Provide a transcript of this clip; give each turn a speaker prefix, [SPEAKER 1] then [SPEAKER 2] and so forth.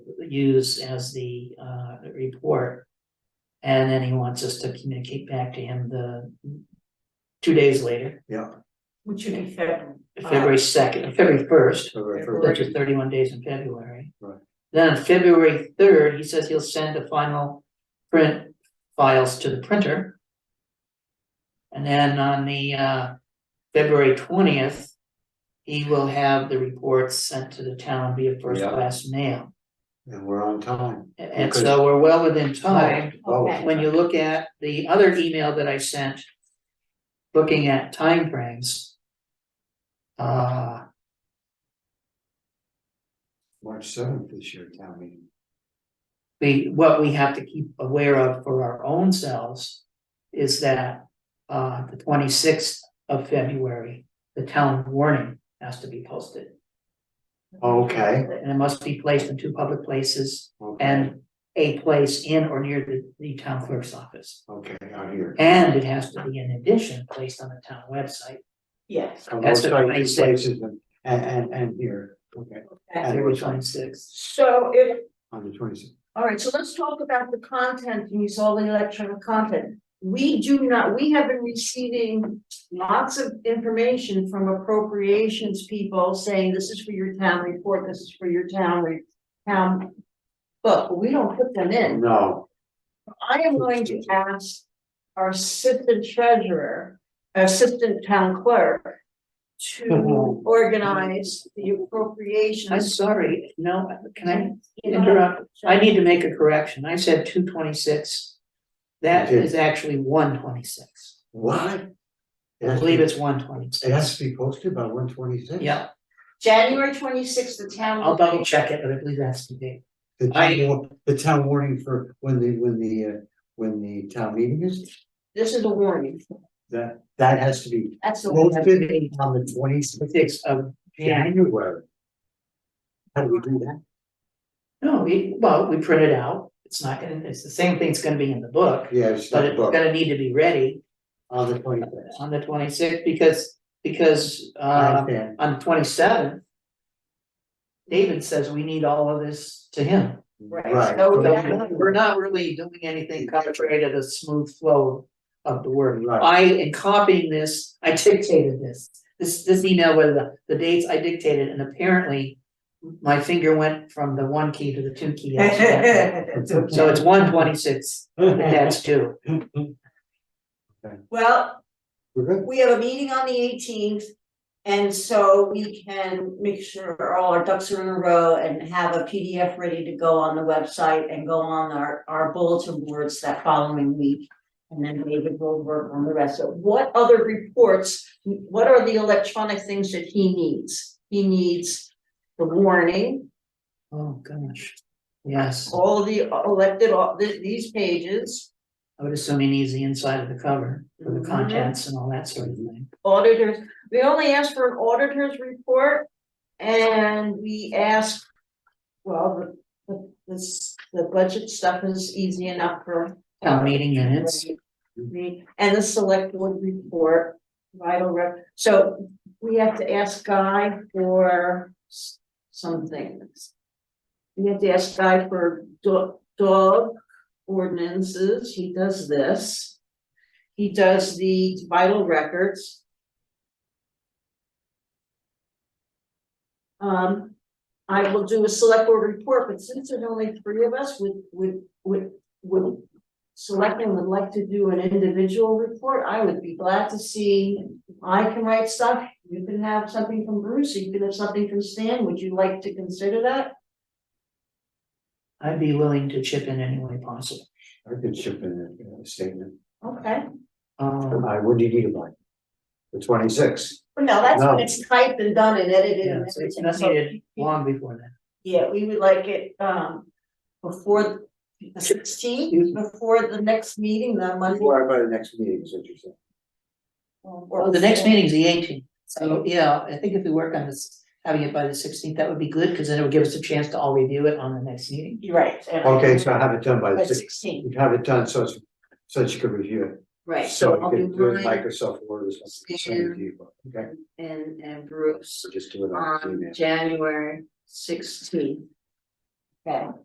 [SPEAKER 1] use as the uh report. And then he wants us to communicate back to him the two days later,
[SPEAKER 2] Which should be February.
[SPEAKER 1] February second, February first,
[SPEAKER 3] February
[SPEAKER 2] February.
[SPEAKER 3] first,
[SPEAKER 1] which is thirty-one days in February.
[SPEAKER 3] Right.
[SPEAKER 1] Then on February third, he says he'll send the final print files to the printer. And then on the uh February twentieth, he will have the reports sent to the town via first-class mail.
[SPEAKER 3] and we're on time.
[SPEAKER 1] And- And
[SPEAKER 3] Okay.
[SPEAKER 1] so we're well within time.
[SPEAKER 3] Oh,
[SPEAKER 2] Okay.
[SPEAKER 1] When you look at the other email that I sent. Looking at timeframes. Uh,
[SPEAKER 3] March seventh this year, town meeting.
[SPEAKER 1] we, what we have to keep aware of for our own selves. Is that, uh, the twenty-sixth of February, the town warning has to be posted.
[SPEAKER 3] Okay.
[SPEAKER 1] And it must be placed in two public places
[SPEAKER 3] Okay.
[SPEAKER 1] and a place in or near the, the town clerk's office.
[SPEAKER 3] Okay, out here.
[SPEAKER 1] And it has to be in addition placed on the town website.
[SPEAKER 2] Yes,
[SPEAKER 3] So
[SPEAKER 1] That's
[SPEAKER 3] we'll
[SPEAKER 1] what
[SPEAKER 3] try
[SPEAKER 1] I
[SPEAKER 3] two
[SPEAKER 1] said.
[SPEAKER 3] places And, and, and- and here, okay,
[SPEAKER 2] okay.
[SPEAKER 3] And-
[SPEAKER 1] February twenty-sixth.
[SPEAKER 2] So if,
[SPEAKER 3] on the twenty-sixth.
[SPEAKER 2] all right, so let's talk about the content, use all the electronic content. We do not, we have been receiving lots of information from appropriations people saying this is for your town report, this is for your town re- town. But we don't put them in.
[SPEAKER 3] No,
[SPEAKER 2] I am going to ask our assistant treasurer, assistant town clerk. To organize the
[SPEAKER 1] I'm
[SPEAKER 2] appropriations.
[SPEAKER 1] sorry, no, can I
[SPEAKER 2] You know,
[SPEAKER 1] interrupt? I need to make a correction. I said two twenty-six. That
[SPEAKER 3] You did.
[SPEAKER 1] is actually one twenty-six.
[SPEAKER 3] what? It
[SPEAKER 1] I
[SPEAKER 3] has to
[SPEAKER 1] believe
[SPEAKER 3] be-
[SPEAKER 1] it's one
[SPEAKER 3] It
[SPEAKER 1] twenty-six.
[SPEAKER 3] has to be posted by one twenty-six?
[SPEAKER 1] Yeah,
[SPEAKER 2] January twenty-sixth, the town.
[SPEAKER 1] I'll double check it, but I believe that's the date.
[SPEAKER 3] The town,
[SPEAKER 1] I-
[SPEAKER 3] war- the town warning for when the, when the, uh, when the town meeting is,
[SPEAKER 2] This is a warning,
[SPEAKER 3] that, that has to be
[SPEAKER 2] that's the. warning.
[SPEAKER 3] posted on the twenty-sixth
[SPEAKER 1] Six of January.
[SPEAKER 3] January. How do we do that?
[SPEAKER 1] No, we, well, we print it out. It's not gonna, it's the same thing's gonna be in the book,
[SPEAKER 3] Yeah, it's
[SPEAKER 1] but
[SPEAKER 3] not
[SPEAKER 1] it's
[SPEAKER 3] booked
[SPEAKER 1] gonna need to be ready
[SPEAKER 3] on the twenty-sixth.
[SPEAKER 1] on the twenty-sixth because, because,
[SPEAKER 3] I
[SPEAKER 1] uh,
[SPEAKER 3] understand,
[SPEAKER 1] on the twenty-seventh, David says we need all of this to him.
[SPEAKER 2] Right,
[SPEAKER 3] Right.
[SPEAKER 2] so
[SPEAKER 1] So
[SPEAKER 2] that-
[SPEAKER 1] we're- We're not really doing anything contrary to the smooth flow of the word.
[SPEAKER 3] Right.
[SPEAKER 1] I, in copying this, I dictated this. This, this email with the, the dates I dictated, and apparently my finger went from the one key to the two key. accidentally. So it's one twenty-six, that's two.
[SPEAKER 2] Well,
[SPEAKER 3] We're good.
[SPEAKER 2] we have a meeting on the eighteenth. And so we can make sure all our ducks are in a row and have a PDF ready to go on the website and go on our, our bulletin boards that following week. And then David will work on the rest of, what other reports, what are the electronic things that he needs? He needs the warning,
[SPEAKER 1] Oh, gosh. Yes,
[SPEAKER 2] all the elected, all the- these pages,
[SPEAKER 1] I would assume he needs the inside of the cover for
[SPEAKER 2] Mhm.
[SPEAKER 1] the contents and all that sort of thing.
[SPEAKER 2] auditors. We only asked for an auditor's report and we asked, well, the, the, this, the budget stuff is easy enough for
[SPEAKER 1] Town meeting minutes,
[SPEAKER 2] Right. And the select board report, vital rep, so we have to ask Guy for s- some things. We have to ask Guy for dog, dog ordinances, he does this. He does the vital records. Um, I will do a select board report, but since there's only three of us, would, would, would, would selectmen would like to do an individual report, I would be glad to see, I can write stuff, you can have something from Bruce, you can have something from Stan, would you like to consider that?
[SPEAKER 1] I'd be willing to chip in any way possible.
[SPEAKER 3] I could ship in a- a statement.
[SPEAKER 2] Okay,
[SPEAKER 1] Um,
[SPEAKER 3] I, what do you need about it? The twenty-six?
[SPEAKER 2] but no, that's
[SPEAKER 3] No.
[SPEAKER 2] when it's typed and done and edited
[SPEAKER 1] yeah,
[SPEAKER 2] and
[SPEAKER 1] so it's
[SPEAKER 2] everything,
[SPEAKER 1] not
[SPEAKER 2] so,
[SPEAKER 1] needed long before that.
[SPEAKER 2] yeah, we would like it, um, before the sixteenth, before the next meeting, the Monday.
[SPEAKER 3] Or by the next meeting, is what you're saying.
[SPEAKER 2] or-
[SPEAKER 3] Oh,
[SPEAKER 1] Well, the next meeting's the eighteenth, so, yeah, I think if we work on this, having it by the sixteenth, that would be good, because then it would give us a chance to all review it on the next meeting.
[SPEAKER 2] You're right. and-
[SPEAKER 3] Okay, so I have it done by the
[SPEAKER 2] By
[SPEAKER 3] sixth,
[SPEAKER 2] sixteen,
[SPEAKER 3] you have it done, so it's, so that you can review it.
[SPEAKER 2] right,
[SPEAKER 3] So
[SPEAKER 2] so
[SPEAKER 3] you
[SPEAKER 2] I'll do
[SPEAKER 3] can do it in
[SPEAKER 2] mine
[SPEAKER 3] Microsoft Word or something, send it to you, okay,
[SPEAKER 2] and, and Bruce. Um,
[SPEAKER 3] so just do it on
[SPEAKER 2] on
[SPEAKER 3] email.
[SPEAKER 2] January sixteenth. Okay,